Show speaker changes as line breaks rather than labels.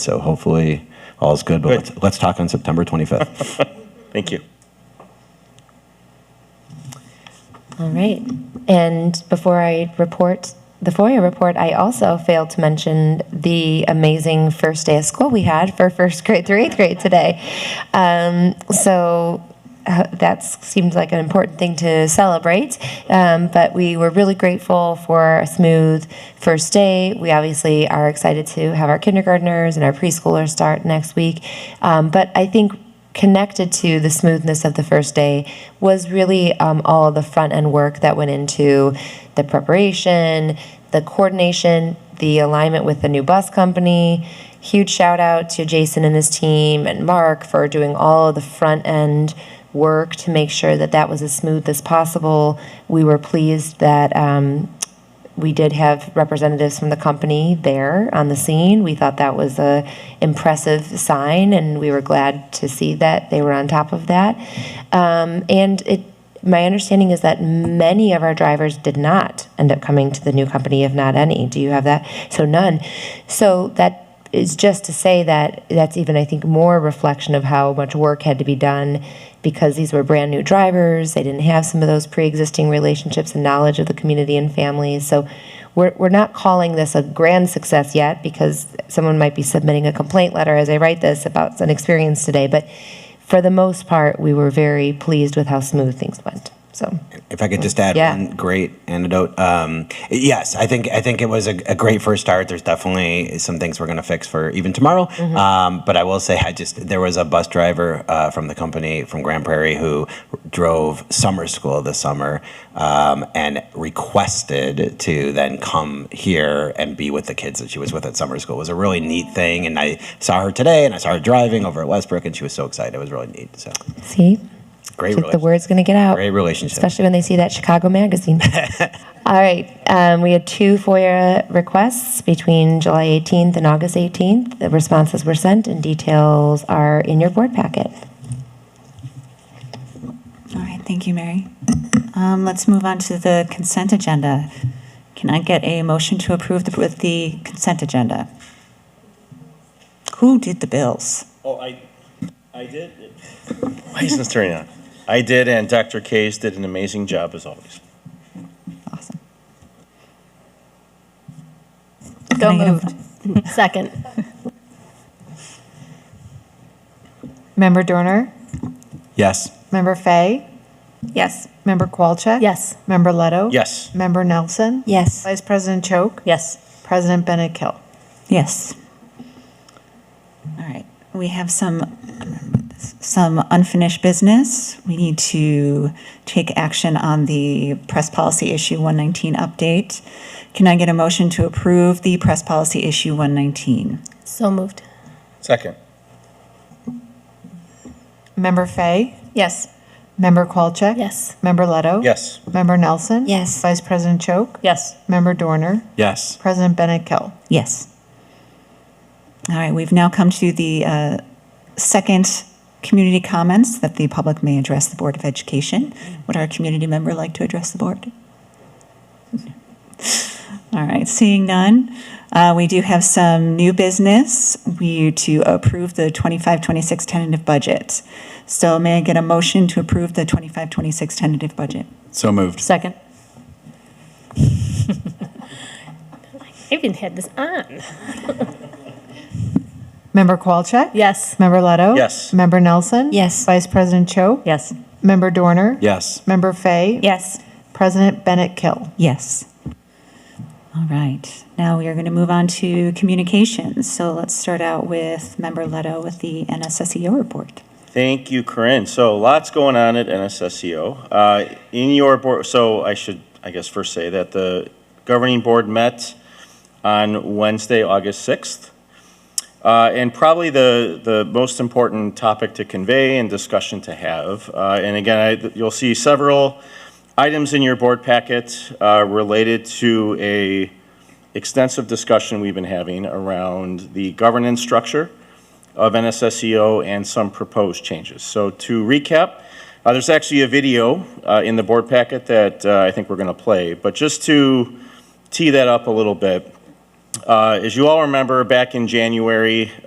So hopefully all's good, but let's, let's talk on September 25th.
Thank you.
All right. And before I report the FOIA report, I also failed to mention the amazing first day of school we had for first grade through eighth grade today. Um, so uh, that seemed like an important thing to celebrate. Um, but we were really grateful for a smooth first day. We obviously are excited to have our kindergartners and our preschoolers start next week. Um, but I think connected to the smoothness of the first day was really um, all the front end work that went into the preparation, the coordination, the alignment with the new bus company. Huge shout out to Jason and his team and Mark for doing all of the front end work to make sure that that was as smooth as possible. We were pleased that um, we did have representatives from the company there on the scene. We thought that was a impressive sign, and we were glad to see that they were on top of that. Um, and it, my understanding is that many of our drivers did not end up coming to the new company, if not any. Do you have that? So none. So that is just to say that that's even I think more reflection of how much work had to be done because these were brand new drivers. They didn't have some of those pre-existing relationships and knowledge of the community and families. So we're, we're not calling this a grand success yet because someone might be submitting a complaint letter as I write this about an experience today. But for the most part, we were very pleased with how smooth things went. So
If I could just add
Hmm. Yeah.
one great antidote. Um, yes, I think I think it was a, a great first start. There's definitely some things we're going to fix for even tomorrow.
Mm-hmm.
Um, but I will say, I just there was a bus driver uh, from the company from Grand Prairie who drove summer school this summer um, and requested to then come here and be with the kids that she was with at summer school. It was a really neat thing, and I saw her today, and I saw her driving over at Westbrook, and she was so excited. It was really neat. So
see,
great.
the
relationship.
word's going to get out.
Great relationship.
especially when they see that Chicago magazine. All right, um, we had two FOIA requests between July 18th and August 18th. The responses were sent, and details are in your board packet.
All right, thank you, Mary. Um, Let's move on to the consent agenda. Can I get a motion to approve the- with the consent agenda? Who did the bills?
Oh, I, I did. Why isn't this turning on? I did, and Dr. Case did an amazing job as always.
Awesome.
So
Can I get a-
moved. Second.
Member Dorner?
yes.
Member Fay?
Yes.
Member Qualcheck?
Yes.
Member Leto?
Yes.
Member Nelson?
Yes.
Vice President Choak?
Yes.
President Bennett Kill?
Yes. All right, we have some, some unfinished business. We need to take action on the press policy issue 119 update. Can I get a motion to approve the press policy issue 119?
So moved.
Second.
Member Fay?
Yes.
Member Qualcheck?
Yes.
Member Leto?
Yes.
Member Nelson?
Yes.
Vice President Choak?
Yes.
Member Dorner?
Yes.
President Bennett Kill?
Yes. All right, we've now come to the uh, second community comments that the public may address the Board of Education. Would our community member like to address the board? All right, seeing none, uh, we do have some new business. We to approve the 25-26 tentative budget. So may I get a motion to approve the 25-26 tentative budget?
So moved.
Second. I even had this on.
Member Qualcheck?
Yes.
Member Leto?
Yes.
Member Nelson?
Yes.
Vice President Choak?
Yes.
Member Dorner?
Yes.
Member Fay?
Yes.
President Bennett Kill?
Yes. All right. Now we are going to move on to communications. So let's start out with Member Leto with the NSSEO E report.
Thank you, Corinne. So lots going on at NSSEO. Uh, In your board, so I should, I guess, first say that the governing board met on Wednesday, August 6th. Uh, And probably the, the most important topic to convey and discussion to have. Uh, And again, I- you'll see several items in your board packet uh, related to a extensive discussion we've been having around the governance structure of NSSEO E and some proposed changes. So to recap, uh, there's actually a video uh, in the board packet that uh, I think we're going to play, but just to tee that up a little bit, uh, as you all remember, back in January,